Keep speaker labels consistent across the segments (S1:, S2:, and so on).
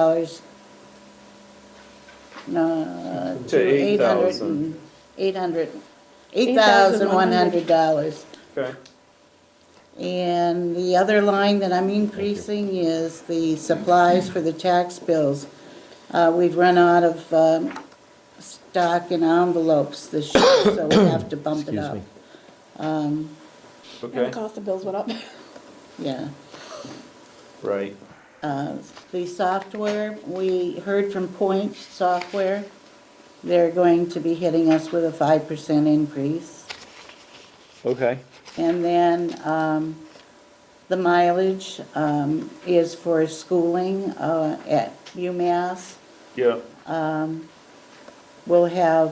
S1: dollars. No,
S2: To
S1: to eight hundred
S2: 8,000.
S1: and, eight hundred, eight thousand one hundred dollars.
S2: Okay,
S1: And the other line that I'm increasing is the supplies for the tax bills. Uh, we've run out of, um, stock and envelopes this year, so we have to bump it up. Um,
S3: And the
S2: okay,
S3: cost of bills went up.
S1: Yeah.
S2: right.
S1: Uh, The software, we heard from Point Software, they're going to be hitting us with a five percent increase.
S2: Okay.
S1: And then um, the mileage um, is for schooling uh, at UMass.
S2: Yeah,
S1: We'll have,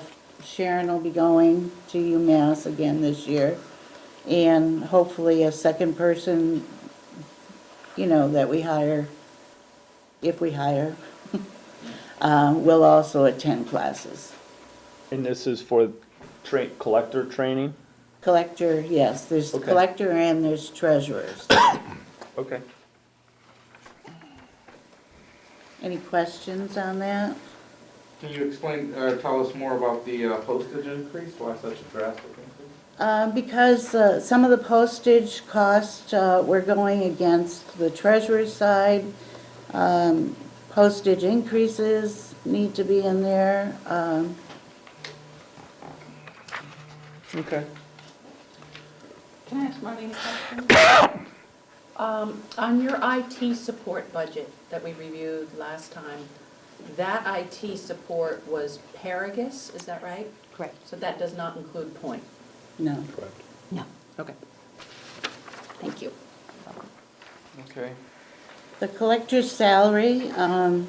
S1: Sharon will be going to UMass again this year. And hopefully a second person, you know, that we hire, if we hire, uh, will also attend classes.
S2: and this is for tra- collector training?
S1: Collector, yes, there's
S2: Okay.
S1: collector and there's treasurers.
S2: Okay.
S1: Any questions on that?
S4: Can you explain, or tell us more about the uh, postage increase? Why such a drastic increase?
S1: Uh, Because uh, some of the postage costs, uh, we're going against the treasurer's side. Um, Postage increases need to be in there. Um,
S2: Okay.
S5: Can I ask Marty a question? Um, On your IT support budget that we reviewed last time, that IT support was Paragus, is that right?
S6: Correct.
S5: So that does not include Point?
S1: No,
S6: No,
S5: Okay. Thank you.
S4: Okay.
S1: the collector's salary um,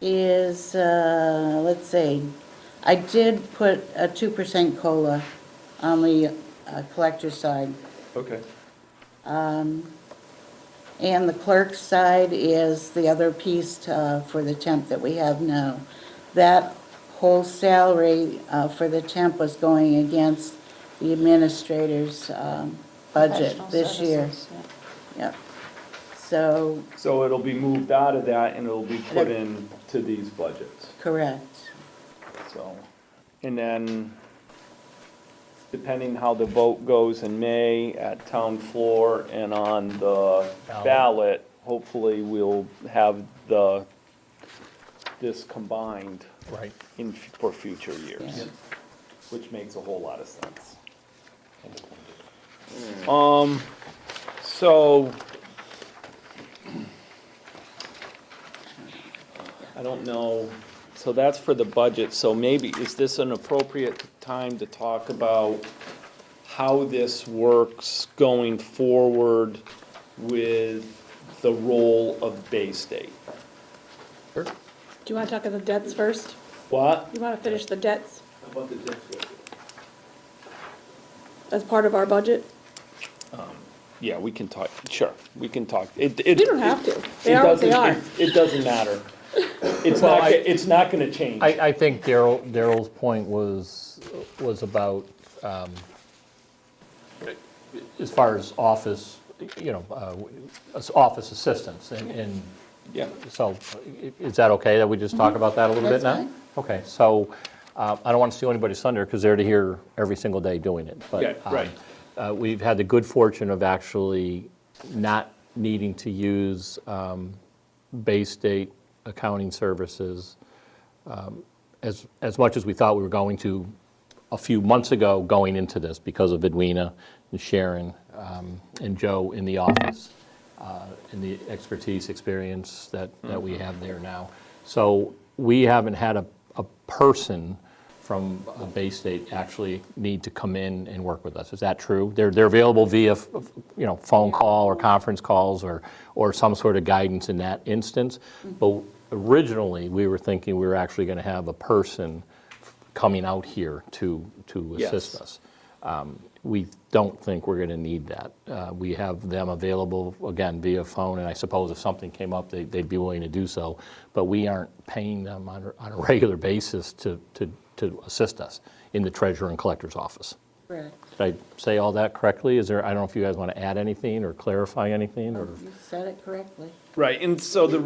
S1: is, uh, let's see, I did put a 2% COLA on the uh, collector's side.
S2: Okay.
S1: Um, And the clerk's side is the other piece uh, for the temp that we have now. That whole salary uh, for the temp was going against the administrator's um, budget
S5: Professional
S1: this year.
S5: services, yeah.
S1: Yep. So,
S2: So it'll be moved out of that and it'll be put in to these budgets,
S1: correct.
S2: so. And then, depending how the vote goes in May at town floor and on the ballot, hopefully we'll have the, this combined
S7: Right.
S2: in, for future years,
S1: Yeah.
S2: which makes a whole lot of sense. Um, so. I don't know, so that's for the budget, so maybe, is this an appropriate time to talk about how this works going forward with the role of Bay State?
S3: Do you want to talk of the debts first?
S2: What?
S3: You want to finish the debts
S4: How about the debt schedule?
S3: as part of our budget?
S2: Yeah, we can talk, sure, we can talk. It, it.
S3: You don't have to. They
S2: it
S3: are what they
S2: doesn't-
S3: are.
S2: it- It doesn't matter. It's
S7: Well,
S2: not,
S7: I-
S2: go- it's not gonna change.
S7: I, I think Daryl, Daryl's point was, was about, um, as far as office, you know, uh, as office assistants, and, and
S2: Yeah,
S7: so, i- is that okay that we just talk about that a little
S1: Mm-hmm. That's
S7: bit now?
S1: fine.
S7: Okay, so, uh, I don't want to steal anybody's thunder, because they're to here every single day doing it, but.
S2: Yeah, right.
S7: um, uh, We've had the good fortune of actually not needing to use um, Bay State accounting services um, as, as much as we thought we were going to a few months ago going into this because of Edwina and Sharon um, and Joe in the office uh, and the expertise, experience that, that we have there now. So we haven't had a, a person from uh, Bay State actually need to come in and work with us. Is that true? They're, they're available via, f- f- you know, phone call or conference calls or, or some sort of guidance in that instance. But originally, we were thinking we were actually going to have a person coming out here to, to assist
S2: Yes.
S7: us. Um, We don't think we're going to need that. Uh, We have them available, again, via phone, and I suppose if something came up, they- they'd be willing to do so, but we aren't paying them on a- on a regular basis to, to, to assist us in the treasurer and collector's office.
S1: Correct.
S7: Did I say all that correctly? Is there, I don't know if you guys want to add anything or clarify anything, or?
S1: You said it correctly.
S2: right, and so the